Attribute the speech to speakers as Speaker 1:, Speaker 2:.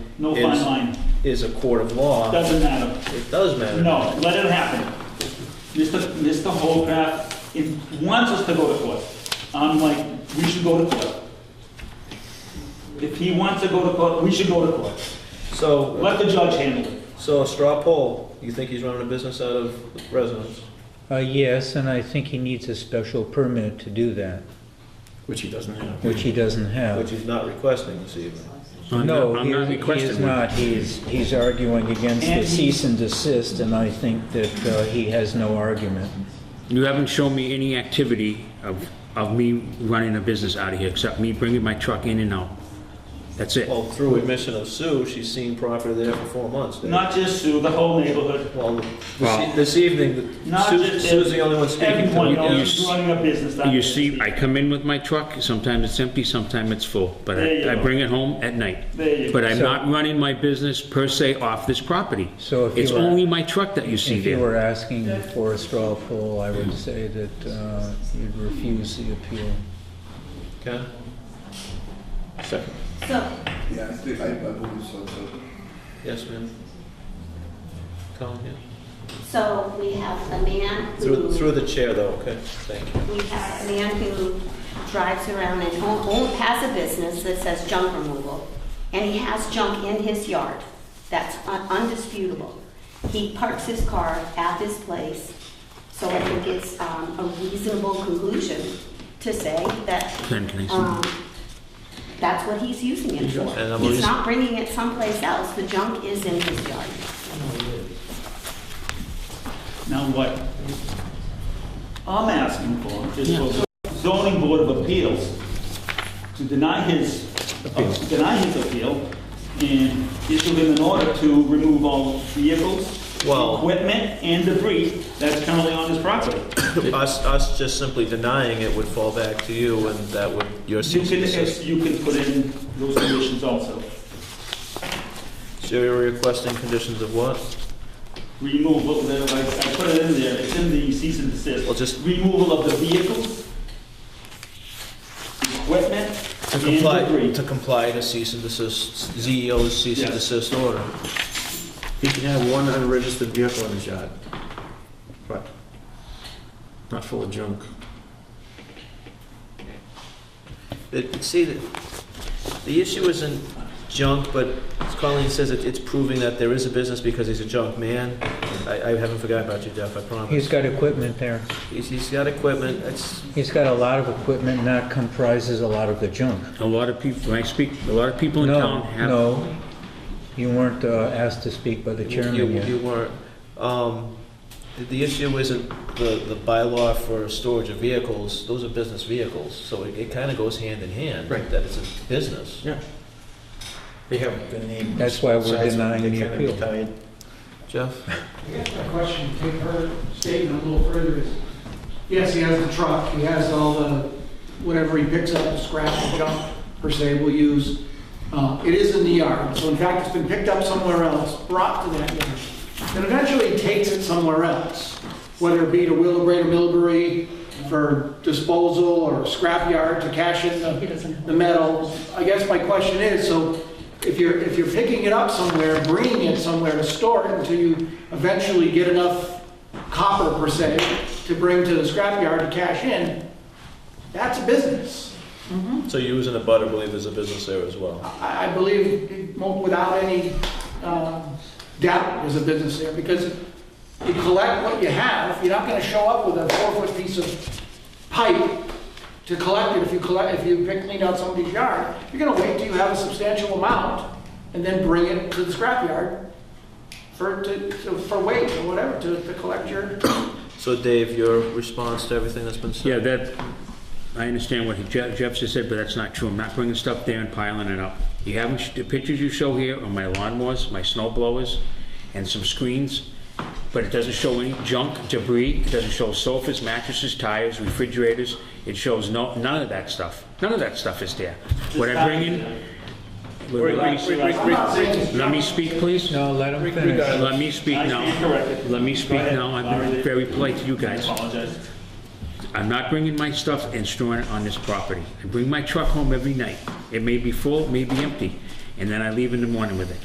Speaker 1: No fine
Speaker 2: is-
Speaker 1: line.
Speaker 2: is a court of law,
Speaker 1: Doesn't matter.
Speaker 2: it does matter.
Speaker 1: No, let it happen. Mr. Mr. Holcraft in- wants us to go to court. I'm like, we should go to court. If he wants to go to court, we should go to court.
Speaker 2: So,
Speaker 1: Let the judge handle it.
Speaker 2: so a straw poll, you think he's running a business out of residence?
Speaker 3: Uh, yes, and I think he needs a special permit to do that,
Speaker 4: Which he doesn't have.
Speaker 3: which he doesn't
Speaker 2: Which
Speaker 3: have.
Speaker 2: he's not requesting this evening.
Speaker 4: I'm
Speaker 3: No,
Speaker 4: not- I'm
Speaker 3: he
Speaker 4: not
Speaker 3: he is
Speaker 4: requesting one.
Speaker 3: not. He's, he's arguing against
Speaker 1: And
Speaker 3: the
Speaker 1: he-
Speaker 3: cease and desist, and I think that uh, he has no argument.
Speaker 4: You haven't shown me any activity of, of me running a business out of here, except me bringing my truck in and out. That's it.
Speaker 2: Well, through admission of Sue, she's seen property there for four months. Dave.
Speaker 1: Not just Sue, the whole neighborhood.
Speaker 2: Well, this
Speaker 4: Well-
Speaker 2: e- this evening,
Speaker 1: Not
Speaker 2: Sue-
Speaker 1: just
Speaker 2: Sue's the only one speaking to
Speaker 1: Everyone
Speaker 2: me.
Speaker 4: you
Speaker 1: knows
Speaker 4: s-
Speaker 1: who's running a business down
Speaker 4: You
Speaker 1: there.
Speaker 4: see, I come in with my truck, sometimes it's empty, sometimes it's full, but
Speaker 1: There you
Speaker 4: I, I
Speaker 1: go.
Speaker 4: bring it home at night.
Speaker 1: There you
Speaker 4: But
Speaker 1: go.
Speaker 4: I'm
Speaker 3: So-
Speaker 4: not running my business per se off this property.
Speaker 3: So if you
Speaker 4: It's
Speaker 3: were-
Speaker 4: only my truck that you see
Speaker 3: If you
Speaker 4: there.
Speaker 3: were asking for a straw poll, I would say that uh, you'd refuse the appeal.
Speaker 2: Okay. Second.
Speaker 5: So,
Speaker 6: Yeah, I think I, I believe so too.
Speaker 2: Yes, ma'am. Colin, yeah.
Speaker 5: so we have a man
Speaker 2: Through, through
Speaker 5: who,
Speaker 2: the chair though, okay, thank you.
Speaker 5: we have a man who drives around and own- own- has a business that says junk removal, and he has junk in his yard. That's un- undisputable. He parks his car at this place, so I think it's um, a reasonable conclusion to say that
Speaker 4: Ken, can I see?
Speaker 5: um, that's what he's using it for.
Speaker 2: And I'm
Speaker 5: He's
Speaker 2: using-
Speaker 5: not bringing it someplace else. The junk is in his yard.
Speaker 1: Now what? I'm asking for is for the zoning board of appeals to deny his, uh, deny his appeal and issue him an order to remove all vehicles,
Speaker 2: Well-
Speaker 1: equipment, and debris that's currently on his property.
Speaker 2: Us, us just simply denying it would fall back to you and that would, your
Speaker 1: You
Speaker 2: cease and
Speaker 1: can,
Speaker 2: desist.
Speaker 1: you can put in those conditions also.
Speaker 2: So you're requesting conditions of what?
Speaker 1: Removal, there, I I put it in there, it's in the cease and desist.
Speaker 2: Well, just-
Speaker 1: Removal of the vehicles, equipment,
Speaker 2: To comply,
Speaker 1: and debris.
Speaker 2: to comply to cease and desist, ZEO's cease and
Speaker 1: Yes.
Speaker 2: desist order.
Speaker 7: He can have one unregistered vehicle in his yard, but not full of junk.
Speaker 2: It, see, the, the issue isn't junk, but as Colleen says, it, it's proving that there is a business because he's a junk man. I, I haven't forgotten about you, Jeff, I promise.
Speaker 3: He's got equipment there.
Speaker 2: He's, he's got equipment, it's,
Speaker 3: He's got a lot of equipment that comprises a lot of the junk.
Speaker 4: A lot of people, when I speak, a lot of people in
Speaker 3: No,
Speaker 4: town have.
Speaker 3: no, you weren't uh, asked to speak by the
Speaker 2: You,
Speaker 3: chairman
Speaker 2: you
Speaker 3: yet.
Speaker 2: weren't. Um, the, the issue isn't the, the bylaw for storage of vehicles, those are business vehicles, so it, it kinda goes hand in hand.
Speaker 7: Right.
Speaker 2: That it's a business.
Speaker 7: Yeah. They haven't been named.
Speaker 3: That's why we're
Speaker 7: Besides,
Speaker 3: denying
Speaker 7: they
Speaker 3: the
Speaker 7: kinda
Speaker 3: appeal.
Speaker 7: retired.
Speaker 2: Jeff?
Speaker 8: I guess my question, take her statement a little further is, yes, he has the truck, he has all the, whatever he picks up, scrap and junk, per se, will use. Uh, It is in the yard, so in fact, it's been picked up somewhere else, brought to that yard, and eventually he takes it somewhere else, whether it be to Willowbrae or Millbury for disposal or scrapyard to cash in the the metal. I guess my question is, so if you're, if you're picking it up somewhere, bringing it somewhere to store it until you eventually get enough copper per se to bring to the scrapyard to cash in, that's a business.
Speaker 2: So you as an abutter believe there's a business there as well?
Speaker 8: I, I believe it won't- without any um, doubt there's a business there because you collect what you have, you're not gonna show up with a four-foot piece of pipe to collect it if you collect, if you pick, clean out somebody's yard. You're gonna wait till you have a substantial amount and then bring it to the scrapyard for, to, to- for weight or whatever, to, to collect your
Speaker 2: So Dave, your response to everything that's been said?
Speaker 4: Yeah, that, I understand what Jeff Jeff just said, but that's not true. I'm not bringing stuff there and piling it up. You haven't, sh- the pictures you show here are my lawnmowers, my snow blowers, and some screens, but it doesn't show any junk, debris, it doesn't show sofas, mattresses, tires, refrigerators. It shows no, none of that stuff. None of that stuff is there. What I bring in...
Speaker 2: Re- re- re- re-
Speaker 4: Let me speak, please.
Speaker 3: No, let him finish.
Speaker 4: Let me speak
Speaker 1: I
Speaker 4: now.
Speaker 1: stand corrected.
Speaker 4: Let me
Speaker 1: Go
Speaker 4: speak
Speaker 1: ahead.
Speaker 4: now. I've been very polite to you guys.
Speaker 1: I apologize.
Speaker 4: I'm not bringing my stuff and storing it on this property. I bring my truck home every night. It may be full, it may be empty, and then I leave in the morning with it.